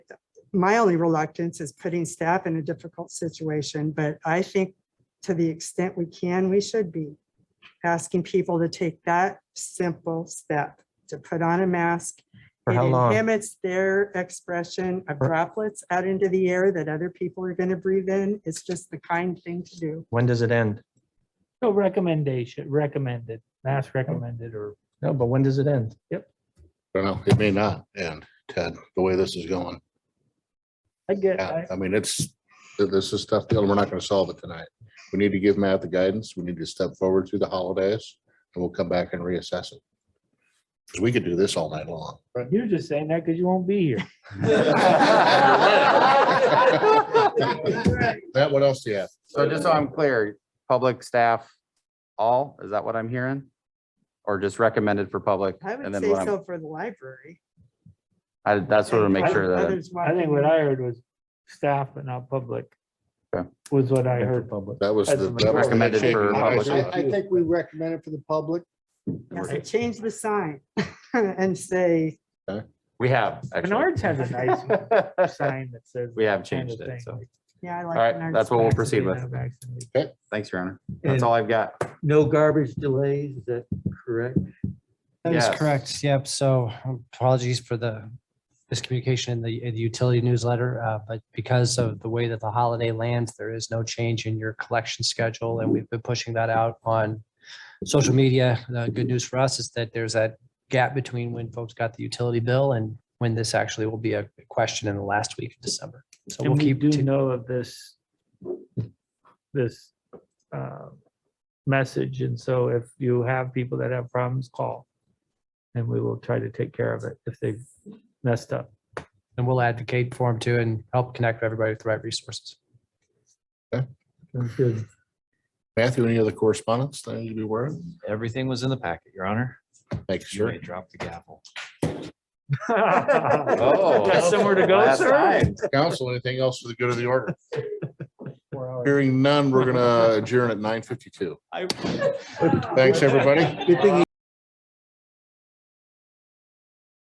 my only reluctance is putting staff in a difficult situation, but I think to the extent we can, we should be asking people to take that simple step to put on a mask. For It how long? inhibits their expression of For- droplets out into the air that other people are going to breathe in. It's just the kind thing to do. When does it end? No recommendation, recommended, Mm-hmm. mask recommended or No, but when does it end? don't know, it may not end, Ted, the way this is going. I get, Yeah, I, I mean, it's, this is tough deal. We're not gonna solve it tonight. We need to give Matt the guidance. We need to step forward through the holidays and we'll come back and reassess it. Because we could do this all night long. you're just saying that because you won't be here. Matt, what else do you have? So just so I'm clear, public staff, all, is that what I'm hearing? Or just recommended for public? I And would then say what I'm- so for the library. I, that's what I make sure that, Others I think what I heard was staff but not public. Okay. Was what I For heard. public. That was. the- that was the Recommended change. for I- I- public. I- I think we recommend it for the public. Yes, and change the sign and say, we have. actually. Menards has a nice sign that says. We have that kind of changed it, thing, so. like, yeah, I like. All right, Menards that's what we'll signs." proceed with. vaccinated, unvaccinated. Thanks, Your Honor. That's And all I've got. no garbage delays, is that correct? That is Yes. correct. Yep. So apologies for the miscommunication in the, in the utility newsletter. uh, But because of the way that the holiday lands, there is no change in your collection schedule. And we've been pushing that out on social media. The good news for us is that there's that gap between when folks got the utility bill and when this actually will be a question in the last week of December. So we'll And we keep. do know of this, this uh, message. And so if you have people that have problems, call. And we will try to take care of it if they've messed up. And we'll advocate for them too and help connect everybody with the right resources. Matthew, any other correspondence that I need to be aware of? Everything was in the packet, Your Honor. Make You sure. may drop the gavel. Oh, Got somewhere to go, last sir? time. Council, anything else for the good of the order? Hearing none, we're gonna adjourn at nine fifty-two. I- Thanks, everybody. Good thing